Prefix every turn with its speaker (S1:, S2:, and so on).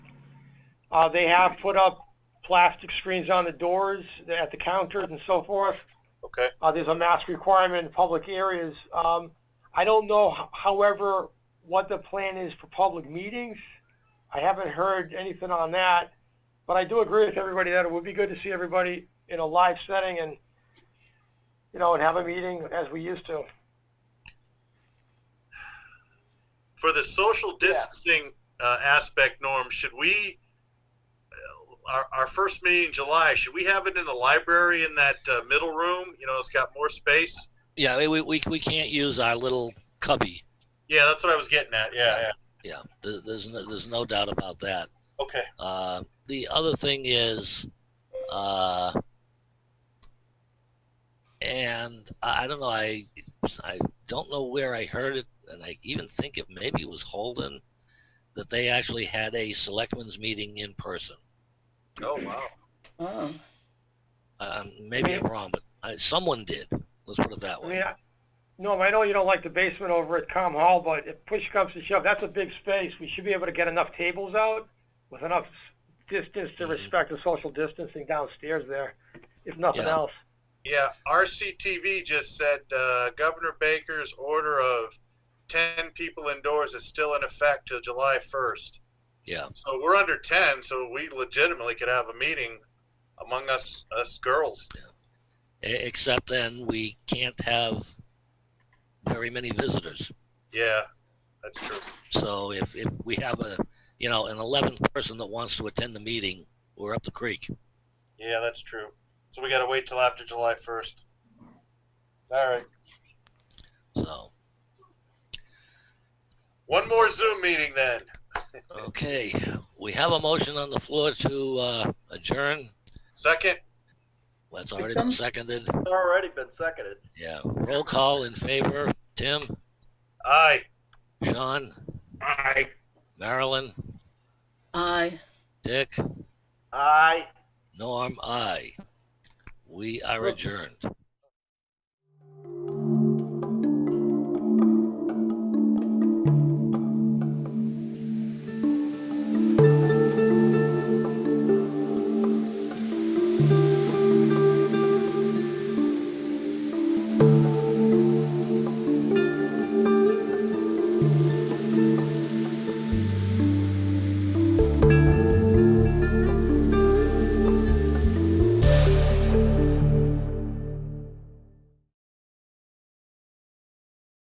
S1: Uh, they have put up plastic screens on the doors, at the counters and so forth.
S2: Okay.
S1: Uh, there's a mask requirement in public areas. Um, I don't know, h- however, what the plan is for public meetings. I haven't heard anything on that, but I do agree with everybody that it would be good to see everybody in a live setting and, you know, and have a meeting as we used to.
S2: For the social
S1: Yeah.
S2: distancing uh, aspect, Norm, should we, uh, our, our first meeting in July, should we have it in the library in that uh, middle room? You know, it's got more space.
S3: Yeah, we, we- we, we can't use our little cubby.
S2: Yeah, that's what I was getting at. Yeah, yeah.
S3: Yeah, there, there's, no, there's no doubt about that.
S2: Okay.
S3: Uh, the other thing is, uh, and I I don't know, I, I don't know where I heard it, and I even think it maybe was Holden, that they actually had a selectmen's meeting in person.
S2: Oh, wow.
S4: Oh,
S3: Um, maybe I'm wrong, but I, someone did. Let's put it that
S1: I
S3: way.
S1: mean, I- Norm, I know you don't like the basement over at Com Hall, but if push comes to shove, that's a big space. We should be able to get enough tables out with enough s- distance to
S3: Mhm.
S1: respect the social distancing downstairs there, if nothing
S3: Yeah.
S1: else.
S2: Yeah, RCTV just said uh, Governor Baker's order of 10 people indoors is still in effect till July 1st.
S3: Yeah.
S2: So we're under 10, so we legitimately could have a meeting among us us girls.
S3: E- Except then we can't have very many visitors.
S2: Yeah, that's true.
S3: So if, if we have a, you know, an eleventh person that wants to attend the meeting, we're up the creek.
S2: Yeah, that's true. So we got to wait till after July 1st. All right.
S3: So,
S2: One more Zoom meeting then.
S3: okay, we have a motion on the floor to uh, adjourn.
S2: Second,
S3: That's already been seconded.
S5: It's already been seconded.
S3: Yeah, roll call in favor. Tim,
S2: aye.
S3: Sean,
S5: Aye.
S3: Marilyn,
S4: aye.
S3: Dick,
S5: Aye.
S3: Norm, I. We are adjourned.